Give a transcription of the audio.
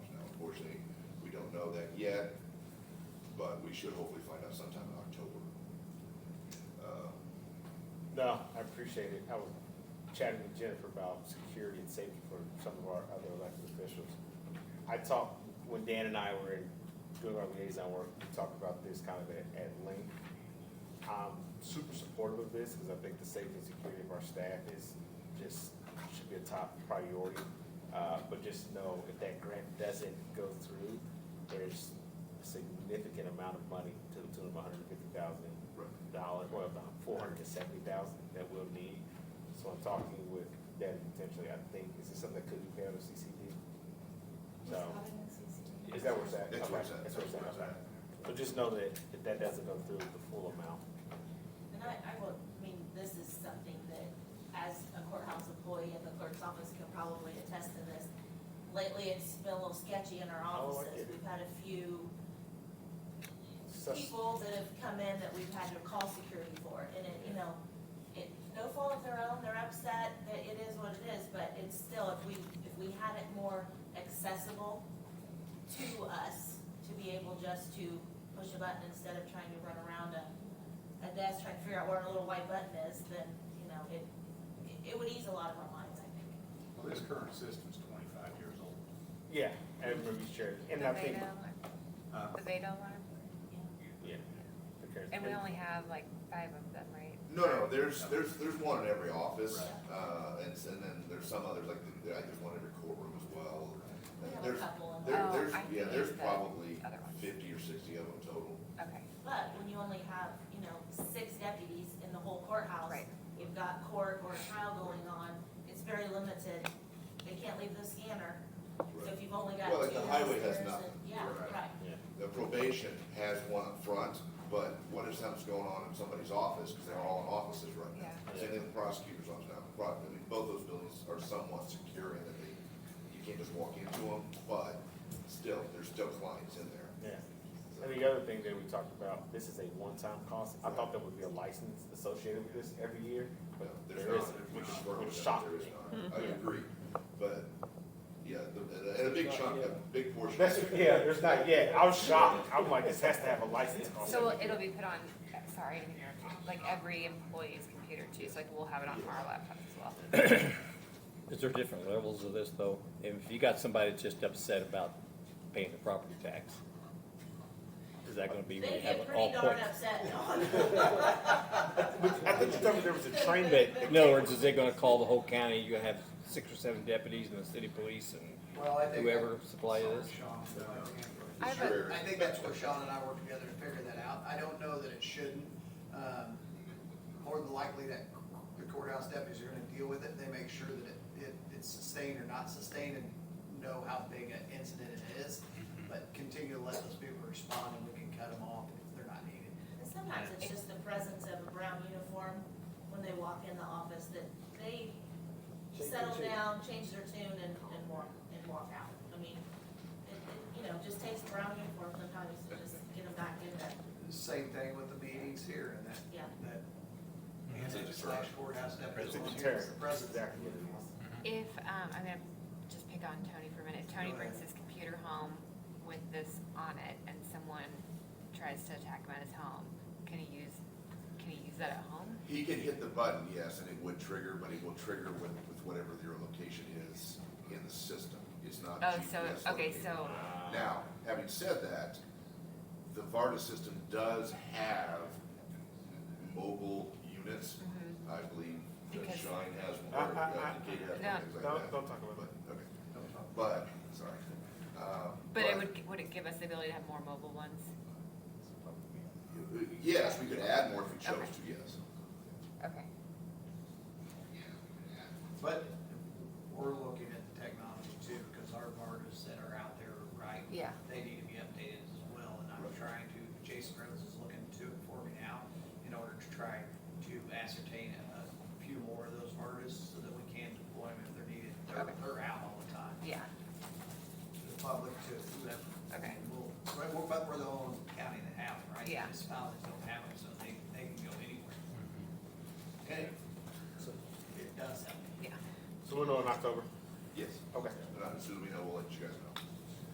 know that yet, but we should hopefully find out sometime in October. Uh, No, I appreciate it. I was chatting with Jennifer about security and safety for some of our other elected officials. I talked, when Dan and I were in doing our liaison work, we talked about this kind of at, at length. I'm super supportive of this, because I think the safety and security of our staff is just, should be a top priority. Uh, but just know, if that grant doesn't go through, there's a significant amount of money to the tune of hundred and fifty thousand Right. dollars, well, about four hundred and seventy thousand that we'll need. So I'm talking with that potentially, I think, is this something that could be paid out of CCD? So, is that where it's at? That's where it's Okay, at. That's where it's at, okay. So just know that if that doesn't go through the full amount, And I, I will, I mean, this is something that, as a courthouse employee in the clerk's office can probably attest to this. Lately, it's been a little sketchy in our Oh, I offices. get it. We've had a few Sus- people that have come in that we've had to call security for, and it, you know, it, no fault of their own, they're upset, that it is what it is, but it's still, if we, if we had it more accessible to us, to be able just to push a button instead of trying to run around a, a desk trying to figure out where a little white button is, then, you know, it, it- it would ease a lot of our minds, I think. Well, this current system's twenty-five years old. yeah, everybody's sharing, and The I Veda think, alarm, Uh, the Veda alarm, yeah. okay. and we only have like five of them, right? No, no, there's, there's, there's one in every office, Right. uh, and, s- and then there's some others, like, there- there's one in every courtroom as well. We have a There's, couple of there, Oh, there's, I yeah, see there's the probably other ones. fifty or sixty of them total. Okay, But when you only have, you know, six deputies in the whole courthouse. Right. You've got court or trial going on, it's very limited, they can't leave the scanner, so if you've only got two. Well, like the highway has officers nothing. and- Yeah, Right. right, The probation has one up front, but what if something's going on in somebody's office, because they're all in offices right now? Yeah. Same thing with prosecutor's office now, Pro- I mean, both those buildings are somewhat secure in that they, you can't just walk into them, but still, there's still clients in there. Yeah, and the other thing that we talked about, this is a one-time cost, I thought there would be a license associated with this every year, No, but There's there not, isn't, there's which is, not, which there's shocked me. Mm-hmm. not. I agree, but, yeah, the- and a- and a big chunk, a big portion. That's, yeah, there's not yet. I was shocked. I'm like, this has to have a license cost. so it'll be put on, sorry, like every employee's computer too, so like we'll have it on our laptop as well. Is there different levels of this, though? If you got somebody that's just upset about paying the property tax, is that gonna be, they when you have get it pretty all darn points? upset, But I think you told me there was a train But, in other words, is it gonna call the whole county, you gonna have six or seven deputies and the city police and Well, I think. whoever supply this? I have a- I think that's where Sean and I work together to figure that out. I don't know that it shouldn't. Um, More than likely that the courthouse deputies are gonna deal with it. They make sure that it, it, it's sustained or not sustained and know how big an incident it is. But continue to let those people respond and we can cut them off if they're not needed. And sometimes it's just the presence of a brown uniform when they walk in the office, that they settle down, change their tune and, and walk, and walk out. I mean, it, it, you know, just takes a brown uniform sometimes to just get them back in that, Same thing with the meetings here and that, yeah. that. And slash courthouse deputies. It's a volunteer terror. is the That's presence. exactly what it is. If, um, I'm gonna just pick on Tony for a minute, Tony Go ahead. brings his computer home with this on it, and someone tries to attack him at his home, can he use, can he use that at home? He can hit the button, yes, and it would trigger, but it will trigger with, with whatever your location is in the system. It's not Oh, GPS so, okay, located. so, Now, having said that, the Varda system does have mobile units. mhm. I believe that Because- Shine has Uh, one, or uh, uh, uh, Kate has no. one, things like Don't, that. don't talk about But, that. okay, but, sorry. Um, but it would, would it give us the ability to have more mobile ones? Yes, we could add more if we chose Okay. to, yes. Okay. But we're looking at the technology too, because our markers that are out there, right? Yeah. They need to be updated as well, and I'm trying to, Jason Rhodes is looking to it for me now in order to try to ascertain a a few more of those markers so that we can deploy them if they're needed. They're, Okay. they're out all the time, Yeah, to the public to whoever. okay, We'll- But we're, but we're the only county that have them, right? Yeah. Municipalities don't have them, so they, they can go anywhere. Okay, Mm-hmm. so it does help. yeah. So we're on October. Yes. Okay. And as soon as we know, we'll let you guys know.